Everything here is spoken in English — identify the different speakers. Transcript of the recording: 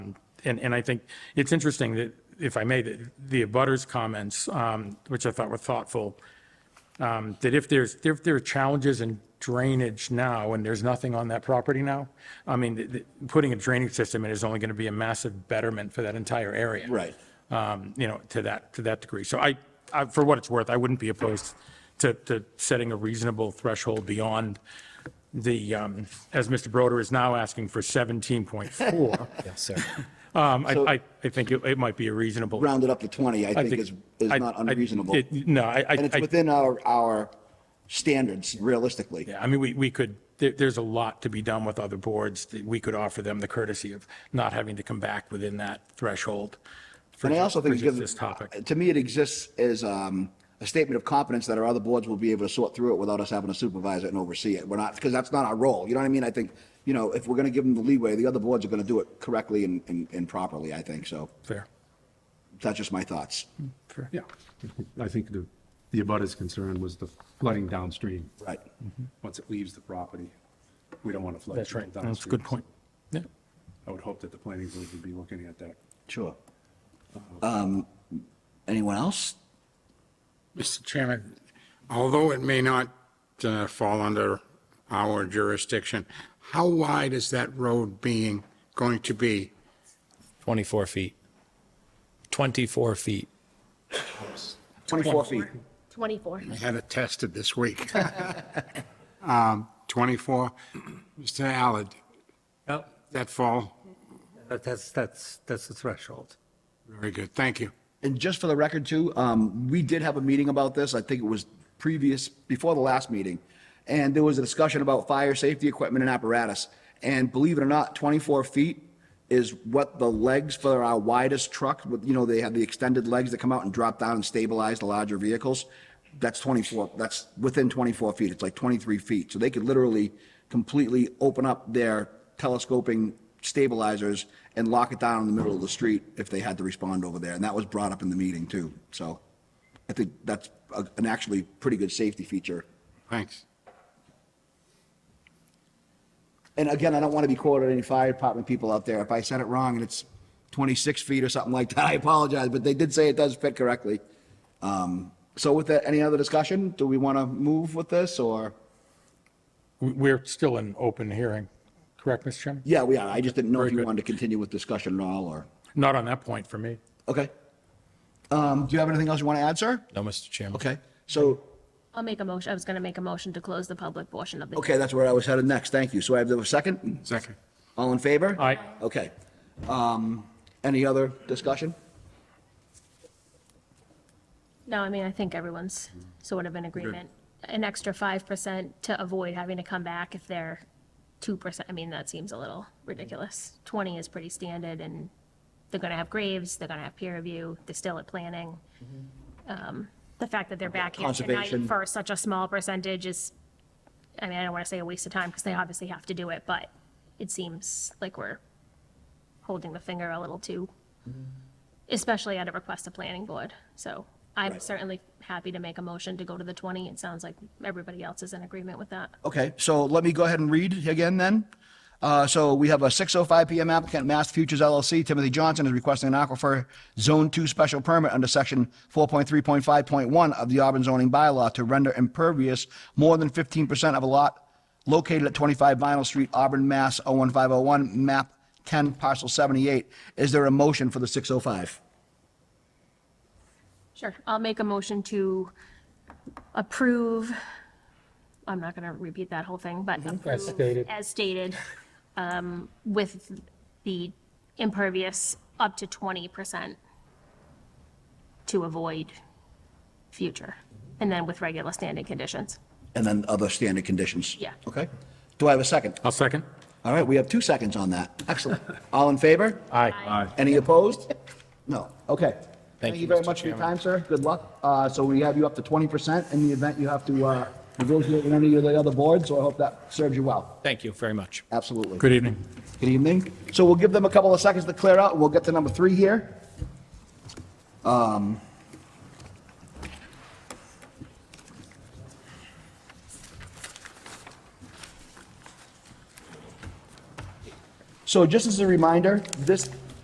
Speaker 1: and, and I think it's interesting that, if I may, that the abutters comments, um, which I thought were thoughtful, um, that if there's, if there are challenges in drainage now and there's nothing on that property now, I mean, th- th- putting a drainage system in is only going to be a massive betterment for that entire area.
Speaker 2: Right.
Speaker 1: Um, You know, to that, to that degree. So I, I, for what it's worth, I wouldn't be opposed to, to setting a reasonable threshold beyond the, um, as Mr. Broder is now asking for 17.4.
Speaker 3: Yes, sir.
Speaker 1: Um, I, I, I think it, it might be a reasonable.
Speaker 2: Round it up to 20, I think
Speaker 1: think-
Speaker 2: is, is
Speaker 1: I-
Speaker 2: not
Speaker 1: I-
Speaker 2: unreasonable.
Speaker 1: it- No, I, I.
Speaker 2: And it's
Speaker 1: I-
Speaker 2: within our, our standards realistically.
Speaker 1: Yeah, I mean, we, we could, there, there's a lot to be done with other boards. that We could offer them the courtesy of not having to come back within that threshold. for
Speaker 2: And I
Speaker 1: ju-
Speaker 2: also think
Speaker 1: for
Speaker 2: it
Speaker 1: just
Speaker 2: gives.
Speaker 1: This topic.
Speaker 2: To me, it exists as um, a statement of confidence that our other boards will be able to sort through it without us having to supervise it and oversee it. We're not, because that's not our role. You know what I mean? I think, you know, if we're going to give them the leeway, the other boards are going to do it correctly and, and and properly, I think. So
Speaker 1: Fair,
Speaker 2: that's just my thoughts.
Speaker 1: fair, yeah.
Speaker 4: I think the, the abutters concern was the flooding downstream.
Speaker 2: Right.
Speaker 4: Once it leaves the property, we don't want to flood.
Speaker 1: Mm-hmm. That's
Speaker 4: people
Speaker 1: right. That's a good
Speaker 4: downstream.
Speaker 1: point. Yeah.
Speaker 4: I would hope that the planning board would be looking at that.
Speaker 2: Sure. Um, Anyone else?
Speaker 5: Mr. Chairman, although it may not uh, fall under our jurisdiction, how wide is that road being, going to be?
Speaker 3: 24 feet. 24 feet.
Speaker 2: 24 feet.
Speaker 6: 24.
Speaker 5: I had it tested this week. Um, 24, Mr. Allard,
Speaker 7: Yep,
Speaker 5: that fall?
Speaker 7: that- that's, that's, that's the threshold.
Speaker 5: Very good, thank you.
Speaker 2: And just for the record too, um, we did have a meeting about this. I think it was previous, before the last meeting. And there was a discussion about fire safety equipment and apparatus. And believe it or not, 24 feet is what the legs for our widest truck, with- you know, they have the extended legs that come out and drop down and stabilize the larger vehicles. That's 24, that's within 24 feet. It's like 23 feet. So they could literally completely open up their telescoping stabilizers and lock it down in the middle of the street if they had to respond over there. And that was brought up in the meeting too. So I think that's a- an actually pretty good safety feature.
Speaker 5: Thanks.
Speaker 2: And again, I don't want to be quoted any fire department people out there. If I said it wrong and it's 26 feet or something like that, I apologize, but they did say it does fit correctly. Um, So with that, any other discussion? Do we want to move with this or?
Speaker 1: We- We're still in open hearing, correct, Mr. Chairman?
Speaker 2: Yeah, we are. I just didn't know if
Speaker 1: Very
Speaker 2: you
Speaker 1: good.
Speaker 2: wanted to continue with discussion at all or,
Speaker 1: Not on that point for me.
Speaker 2: okay. Um, Do you have anything else you want to add, sir?
Speaker 3: No, Mr. Chairman.
Speaker 2: Okay, so
Speaker 6: I'll make a motion, I was going to make a motion to close the public portion of the.
Speaker 2: Okay, that's where I was headed next. Thank you. So I have a second?
Speaker 5: Second.
Speaker 2: All in favor?
Speaker 1: Aye.
Speaker 2: Okay. Um, Any other discussion?
Speaker 6: No, I mean, I think everyone's sort of in agreement. An extra 5% to avoid having to come back if they're 2%, I mean, that seems a little ridiculous. 20 is pretty standard and they're going to have graves, they're going to have peer review, they're still at planning. Um, The fact that they're back here tonight
Speaker 2: Conservation.
Speaker 6: for such a small percentage is, I mean, I don't want to say a waste of time because they obviously have to do it, but it seems like we're holding the finger a little too especially at a request of planning board. So I'm certainly happy to make a motion to go to the 20. It sounds like everybody else is in agreement with that.
Speaker 2: Okay, so let me go ahead and read again then. Uh, So we have a 6:05 PM applicant, Mass Futures LLC, Timothy Johnson is requesting an aquifer Zone 2 special permit under Section 4.3.5.1 of the Auburn zoning bylaw to render impervious more than 15% of a lot located at 25 Vinyl Street, Auburn, Mass. 01501, map 10, parcel 78. Is there a motion for the 605?
Speaker 6: Sure. I'll make a motion to approve, I'm not going to repeat that whole thing, but approve
Speaker 7: stated.
Speaker 6: as stated, um, with the impervious up to 20% to avoid future, and then with regular standing conditions.
Speaker 2: And then other standard conditions?
Speaker 6: Yeah.
Speaker 2: Okay. Do I have a second?
Speaker 1: I'll second.
Speaker 2: All right, we have two seconds on that. Excellent. All in favor?
Speaker 1: Aye.
Speaker 2: Any opposed? No. Okay.
Speaker 3: Thank you,
Speaker 2: very
Speaker 3: Mr.
Speaker 2: much for your
Speaker 3: Chairman.
Speaker 2: time, sir. Good luck. Uh, So we have you up to 20% in the event you have to uh, negotiate with any of the other boards, so I hope that serves you well.
Speaker 3: Thank you very much.
Speaker 2: Absolutely.
Speaker 1: Good evening.
Speaker 2: Good evening. So we'll give them a couple of seconds to clear out, and we'll get to number three here. Um, So just as a reminder, this